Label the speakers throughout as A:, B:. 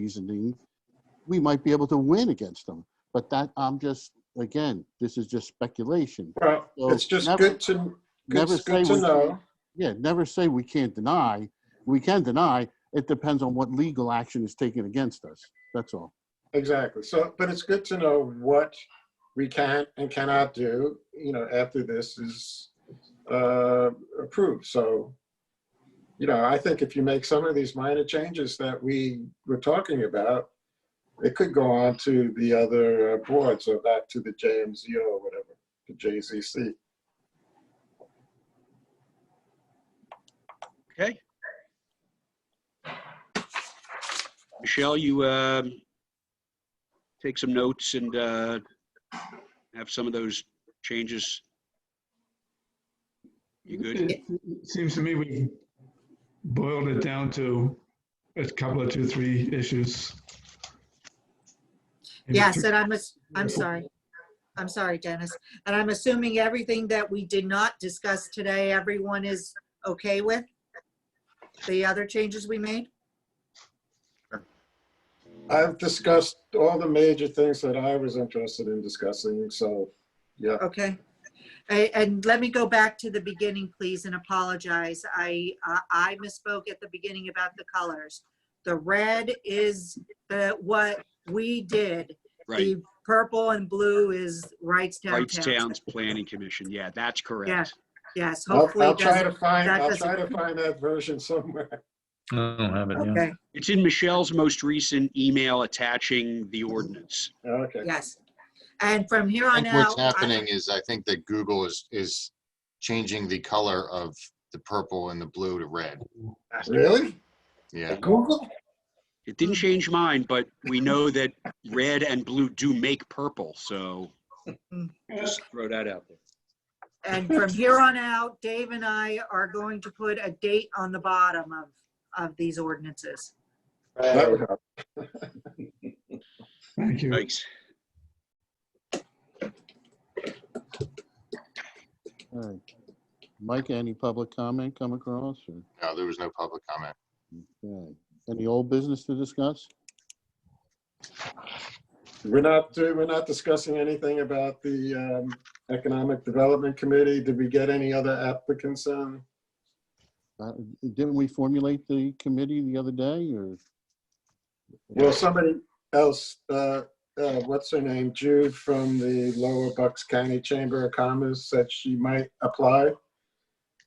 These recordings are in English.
A: reasoning, we might be able to win against them. But that, I'm just, again, this is just speculation.
B: Well,
A: So
B: it's just
A: never-
B: good to, good
A: never
B: good
A: say
B: to
A: we-
B: know.
A: Yeah, never say we can't deny. We can deny. It depends on what legal action is taken against us. That's all.
B: Exactly. So, but it's good to know what we can and cannot do, you know, after this is uh, approved. So, you know, I think if you make some of these minor changes that we were talking about, it could go on to the other uh, boards or back to the JMZO or whatever, the JZC.
C: Okay. Michelle, you um, take some notes and uh, have some of those changes. You good?
D: It Seems to me we boiled it down to a couple of two, three issues. Maybe
E: Yes,
D: three-
E: and I'm, ass- I'm sorry. I'm sorry, Dennis. And I'm assuming everything that we did not discuss today, everyone is okay with? The other changes we made?
B: I've discussed all the major things that I was interested in discussing, so, yeah.
E: Okay. A- And let me go back to the beginning, please, and apologize. I, uh, I misspoke at the beginning about the colors. The red is the, what we did.
C: Right.
E: The purple and blue is Wrightstown Town Council.
C: Wrightstown's Planning Commission. Yeah, that's correct.
E: Yes,
B: I'll,
E: hopefully
B: I'll
E: it
B: try
E: doesn't,
B: to find,
E: that
B: I'll
E: doesn't-
B: try to find that version somewhere.
F: I don't have it, yeah.
E: okay,
C: It's in Michelle's most recent email attaching the ordinance.
B: Okay.
E: yes. And from here
G: I
E: on
G: think
E: out.
G: what's
E: I-
G: happening is I think that Google is, is changing the color of the purple and the blue to red.
B: Really?
G: Yeah.
B: Google?
C: It didn't change mine, but we know that red and blue do make purple, so just throw that out there.
E: And from here on out, Dave and I are going to put a date on the bottom of, of these ordinances.
B: That would help.
D: Thank you.
C: Thanks.
A: All right. Mike, any public comment come across? or-
G: No, there was no public comment.
A: okay. Any old business to discuss?
B: We're not, do- we're not discussing anything about the um, Economic Development Committee. Did we get any other applicants on?
A: Uh, Didn't we formulate the committee the other day or?
B: Well, somebody else, uh, uh, what's her name, Jude from the Lower Bucks County Chamber of Commerce said she might apply.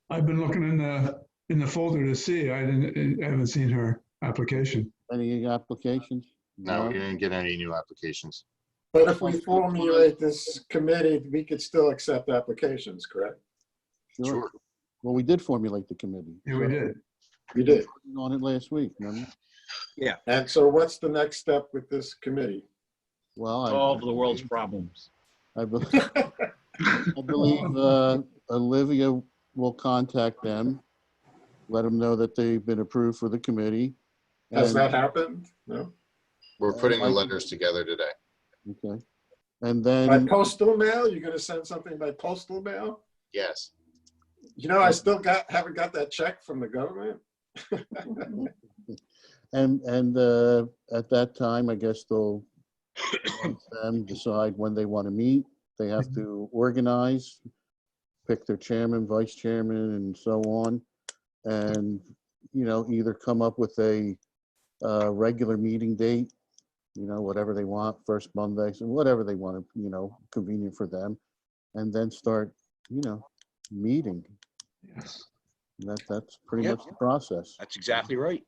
D: I've been looking in the, in the folder to see. I didn't, I haven't seen her application.
A: Any applications?
G: No, we didn't get any new applications.
B: But if we formulate this committee, we could still accept applications, correct?
A: Sure.
G: Sure.
A: Well, we did formulate the committee.
D: Yeah, we
A: so-
D: did.
B: We did.
A: On it last week, remember?
B: And so what's the next step with this committee?
A: Well, I.
H: solve the world's problems.
A: I believe, I believe uh, Olivia will contact them, let them know that they've been approved for the committee.
B: Has
A: and-
B: that happened? No?
G: We're putting the letters together today.
A: Okay. And
B: By
A: then,
B: postal mail? You're gonna send something by postal mail?
G: Yes.
B: You know, I still got, haven't got that check from the government.
A: and, and uh, at that time, I guess they'll let them decide when they want to meet. They have to organize, pick their chairman, vice chairman, and so on. And, you know, either come up with a uh, regular meeting date, you know, whatever they want, first Monday, so whatever they want, to you know, convenient for them. And then start, you know, meeting.
D: Yes.
A: That, that's pretty
C: Yep.
A: much the process.
C: That's exactly right.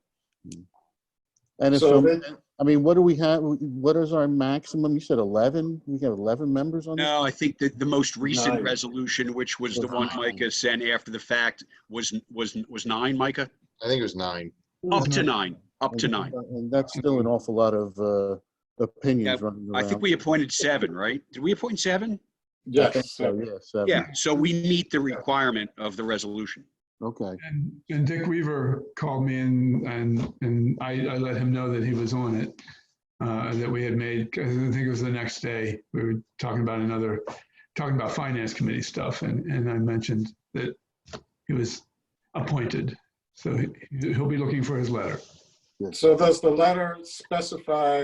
A: And if
B: So
A: some,
B: they-
A: I mean, what do we have, what is our maximum? You said 11? We have 11 members on this?
C: No, I think that the most recent
B: Nine.
C: resolution, which was the one
A: Nine.
C: Micah sent after the fact, was, was, was nine, Micah?
G: I think it was nine.
C: Up to nine, up to
A: And-
C: nine.
A: And that's still an awful lot of uh, opinions running
C: I think
A: around.
C: we appointed seven, right? Did we appoint seven?
A: I think
B: Yes,
A: So, yeah, seven.
C: Yeah, so we meet the requirement of the resolution.
A: Okay,
D: And, and Dick Weaver called me and, and, and I, I let him know that he was on it. Uh, that we had made, I think it was the next day, we were talking about another, talking about finance committee stuff and, and I mentioned that he was appointed. So he- he'll be looking for his letter.
B: So does the letter specify